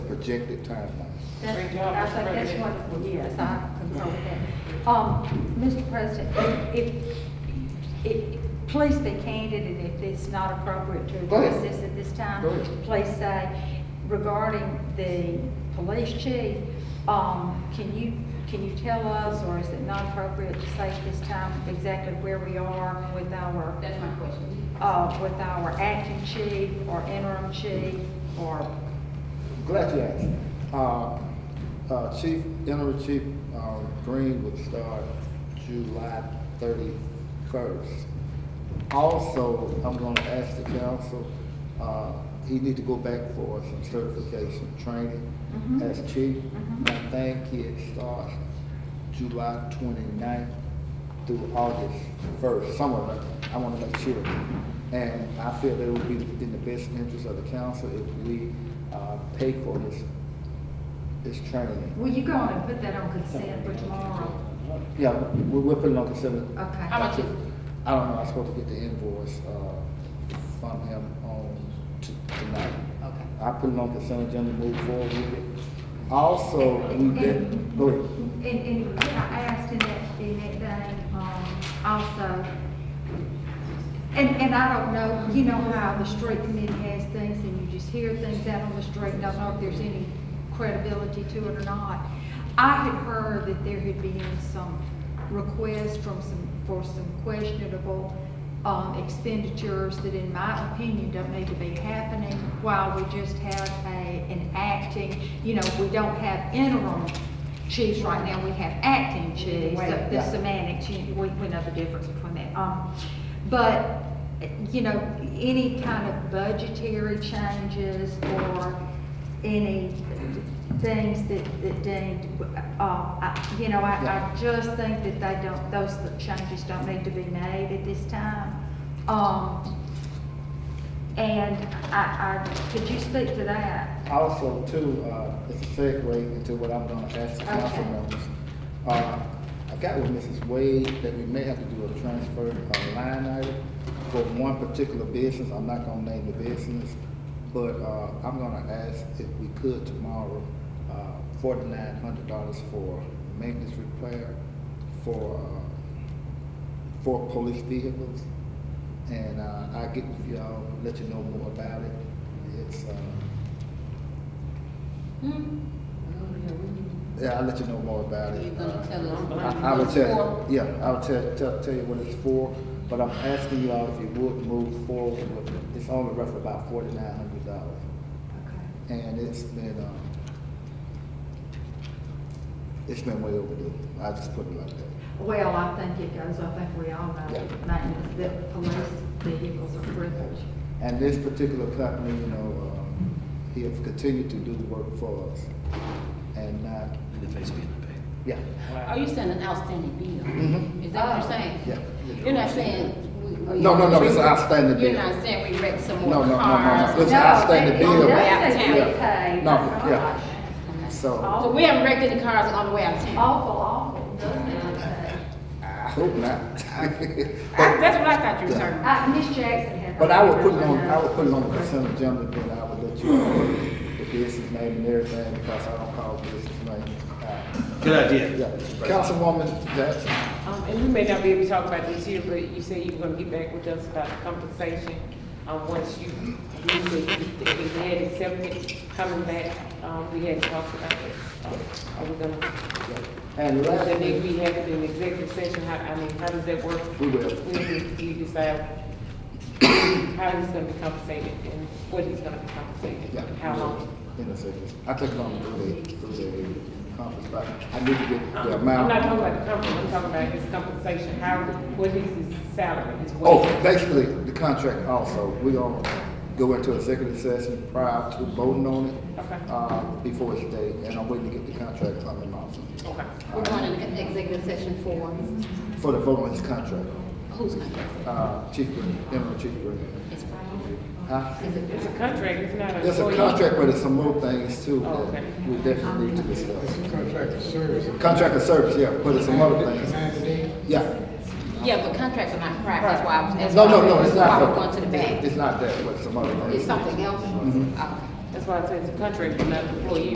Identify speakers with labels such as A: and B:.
A: projected timeline.
B: Great
C: That's,
B: job,
C: I
B: Mr.
C: think that's
B: President.
C: what, yes, I concur with that. Um, Mr. President, if, if, place the candidate, if it's not appropriate to
A: Go ahead.
C: address this at this time,
A: Go ahead.
C: please say regarding the police chief, um, can you, can you tell us, or is it not appropriate to say at this time exactly where we are with our
B: That's my question.
C: uh, with our acting chief or interim chief or,
A: Glad you asked. Uh, uh, Chief, Interim Chief uh, Green would start July thirty-first. Also, I'm gonna ask the council, uh, he need to go back for some certification training
C: Mhm.
A: as chief.
C: Mhm.
A: I think it starts July 29th through August first, somewhere, but I wanna make sure. And I feel that it would be in the best interest of the council if we, uh, pay for this, this training.
C: well, you go on and put that on consent for tomorrow.
A: Yeah, we, we're putting on consider,
B: How
C: Okay.
B: much is,
A: I don't know, I'm supposed to get the invoice, uh, from him on t- tonight.
B: okay.
A: I put it on consent agenda, move forward with it. Also, we did, go ahead.
D: And, and what I asked in that, in that thing, um, also, and, and I don't know, you know how the street committee has things and you just hear things out on the street, and don't know if there's any credibility to it or not. I had heard that there had been some requests from some, for some questionable, um, expenditures that in my opinion don't need to be happening while we just have a, an acting, you know, we don't have interim chiefs right now, we have acting chiefs.
C: Right.
D: The- The
A: Yeah.
D: semantics, you- we, we know the difference between that. Um, but, you know, any kind of budgetary changes or any things that, that deemed, uh, I- you know, I, I just think that they don't, those changes don't need to be made at this time. Um, and I, I, could you speak to that?
A: Also, too, uh, it's a segue into what I'm gonna ask the council
D: Okay.
A: members. Uh, I got with Mrs. Wade that we may have to do a transfer, a line item for one particular business. I'm not gonna name the business, but, uh, I'm gonna ask if we could tomorrow, uh, forty-nine hundred dollars for maintenance repair for, uh, for police vehicles. And, uh, I'll get with y'all, let you know more about it. It's, uh, Yeah, I'll let you know more about it.
B: You're gonna tell us
A: Uh,
B: what
A: I I will
B: it's
A: tell you, yeah, I will tell, tell, tell you what it's for, but I'm asking you all if you would move forward with it. It's only roughly about forty-nine hundred dollars,
D: Okay.
A: and it's been, um, it's been way overdue. I just put it like that.
D: Well, I think it goes, I think we all know that maintenance, that police vehicles are privileged.
A: And this particular company, you know, um, he has continued to do work for us and not,
E: in the face of getting paid.
A: yeah,
B: Are you saying an outstanding bill?
A: Mhm.
B: Is that what you're saying?
A: yeah.
B: You're not saying we. we-
A: No, no, no, it's an outstanding
B: You're
A: bill.
B: not saying we wrecked some
A: No,
B: more
A: no, no, no, no.
B: cars?
A: It's
C: No,
A: outstanding
C: they-
A: bill.
C: they say
B: Yeah.
C: get paid.
A: No,
C: Oh,
A: yeah.
C: gosh.
A: So,
B: So we haven't wrecked any cars on the way out of town?
C: Awful, awful, doesn't it?
A: I hope not.
B: I- That's what I thought you were saying.
D: Uh, Ms. Jackson had.
A: But I would put it on, I would put it on the consent agenda, then I would let you know the business name and everything, because I don't call business names. Uh,
E: Good idea.
A: Yeah,
E: Mr. President.
A: Councilwoman Jackson,
F: Um, and you may not be able to talk about this here, but you said you were gonna get back with us about the compensation, um, once you, we, we we had accepted coming back, um, we had talked about it. Um, Are we gonna,
A: and
F: does that need to
A: lastly,
F: be happened in executive session, how, I mean, how does that work?
A: we will,
F: When we, we decide how he's gonna be compensated and what he's gonna be compensated,
A: yeah.
F: and how long?
A: In a second. I think I'm gonna do the, do the conference, but I need to get the
F: I'm
A: amount.
F: not talking about the company, I'm talking about his compensation, how, what is his salary, his wage?
A: Oh, basically, the contract also, we gonna go into executive session prior to voting on it.
F: Okay.
A: Uh, before it's day, and I'm waiting to get the contract from him also,
F: Okay.
B: We're going into executive session for
A: for the vote on his contract,
B: who's contract?
A: uh, Chief Green, Interim Chief Green.
B: It's
A: Huh?
B: Is it?
F: It's a contract, it's not a.
A: There's a contract, but there's some more things too
F: Oh, okay.
A: that we definitely need to discuss.
G: Contract of service.
A: Contract of service, yeah, but there's some other things,
G: Nine days.
A: yeah.
B: Yeah, but contracts are not correct, that's why I was asking.
A: No, no, no, it's
B: Why
A: not.
B: we're going to the
A: It's Mm-hmm.
B: bank?
A: not that, but some other things.
B: It's something else? Okay.
F: That's why I said it's a contract, but not employee.